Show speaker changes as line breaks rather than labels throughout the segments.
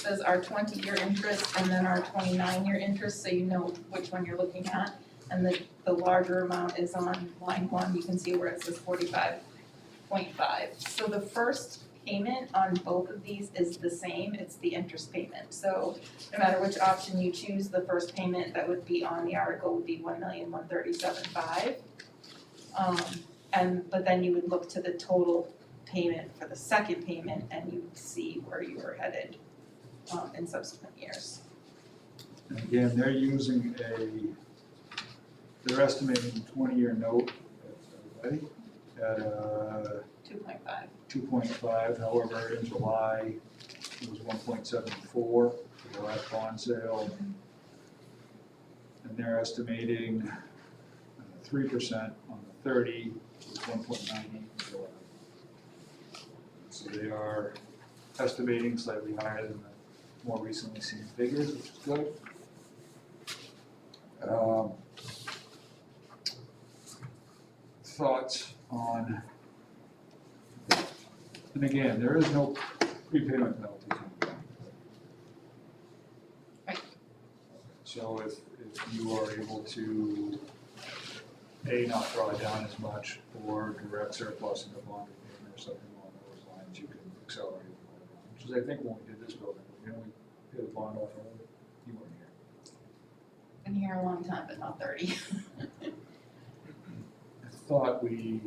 says our twenty-year interest and then our twenty-nine-year interest, so you know which one you're looking at. And the, the larger amount is on line one, you can see where it says forty-five point five. So the first payment on both of these is the same, it's the interest payment. So no matter which option you choose, the first payment that would be on the article would be one million, one thirty-seven, five. Um, and, but then you would look to the total payment for the second payment and you would see where you were headed um in subsequent years.
And Again, they're using a, they're estimating twenty-year note, that's everybody, at uh
Two point five.
two point five, however, in July, it was one point seven four for the last bond sale. And they're estimating uh, three percent on the thirty, which is one point nine eight in July. So they are estimating slightly higher than the more recently seen figures, which is good. Um, Thoughts on and again, there is no prepayment penalty.
Right.
So if, if you are able to, A, not draw down as much, or direct surplus into bond repayment or something along those lines, you can accelerate. it. Which is, I think, when we did this building, you know, we did a bond off of, it. you weren't here.
Been here a long time, but not thirty.
I thought we.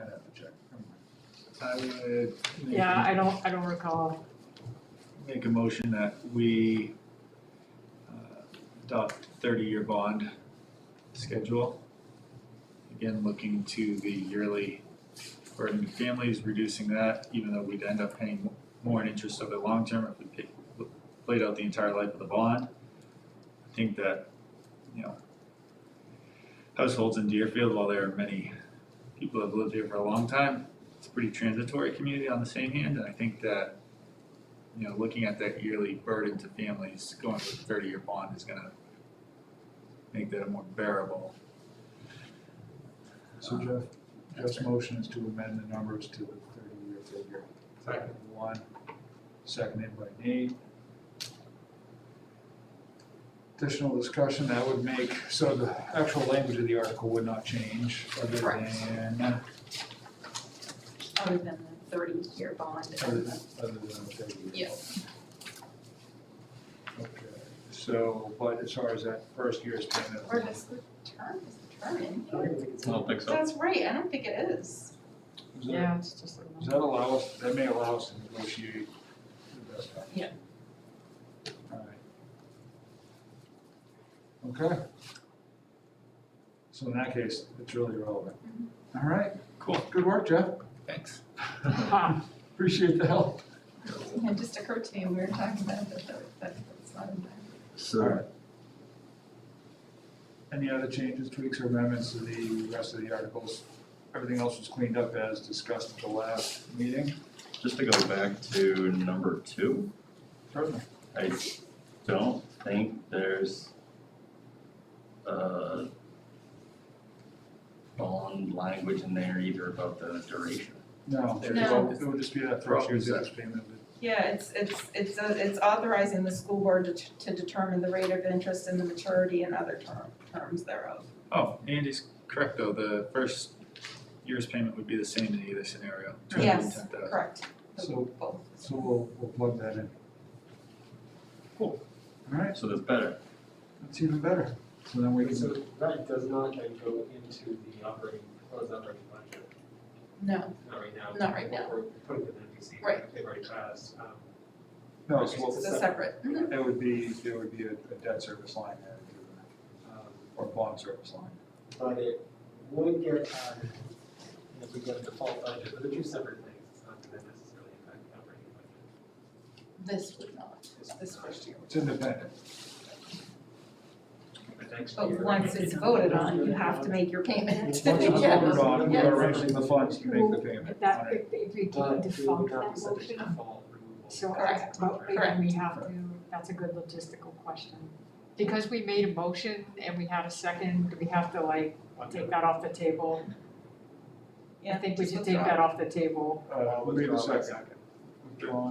i have to check. Never mind.
I would make-
Yeah, I don't, I don't recall.
make a motion that we uh, adopt thirty-year bond schedule. Again, looking to the yearly burden to families, reducing that, even though we'd end up paying more in interest over the long term if we pay- played out the entire life of the bond. I think that, you know, households in Deerfield, while there are many people that have lived here for a long time, it's a pretty transitory community on the same hand, and I think that you know, looking at that yearly burden to families, going with a thirty-year bond is gonna make that a more bearable. Uh,
So Jeff, Jeff's motion is to amend the numbers to the thirty-year figure. Second. One, seconded by Nate. Additional discussion, that would make, so the actual language of the article would not change other
Correct.
than,
Other than the thirty-year bond.
other than, other than the thirty-year.
Yes.
Okay, so, but as far as that first year's payment.
Or does the term, is the term in
I
here?
don't think
That's right, I don't think it is.
Does that-
Yeah, it's just.
Does that allow us, that may allow us to negotiate the best option?
Yeah.
Alright. Okay. So in that case, it's really relevant.
Mm-hmm.
Alright,
Cool.
good work, Jeff.
Thanks.
Um,
Appreciate the help.
It just occurred to me, we were talking about it, but that, that's not in there.
Alright. Any other changes, tweaks, or amendments to the rest of the articles? Everything else was cleaned up as discussed at the last meeting?
Just to go back to number two,
Certainly.
I don't think there's uh bond language in there either about the duration.
No, it
No.
would- it would just be that first year's interest payment.
Yeah, it's, it's, it's, uh, it's authorizing the school board to, to determine the rate of interest and the maturity and other term, terms thereof.
Oh, Andy's correct though, the first year's payment would be the same in either scenario, two hundred and
Yes,
ten thousand.
correct.
So
Both.
So we'll, we'll plug that in.
Cool.
Alright,
So that's better.
that's even better. So then we can,
So that does not then go into the operating, proposed operating budget,
No,
not right now.
Not right now.
We're putting it in NBC,
Right.
they've already passed, um,
no, so
it's
Oh, we'll-
a separate. mhm.
it would be, it would be a a debt service line added to it,
um,
or bond service line.
but it would get added if we get a default budget, but they're two separate things, it's not gonna necessarily impact the operating budget.
This would not,
It's
this
not.
first year.
It's independent.
But next
But
year-
once it's voted on, you have to make your payment.
Once it's
Yeah.
Voted on, we are
Yes.
raising the funds to make the payment.
If that, if, if we can
But it
default
would not
that
be subject to
motion,
default removal.
so I,
Correct.
but we-
Correct.
we have to, that's a good logistical question. Because we made a motion and we had a second, do we have to like take that off the table? I think we should take that off the table.
Uh, wait a
Withdraw my
second. Well,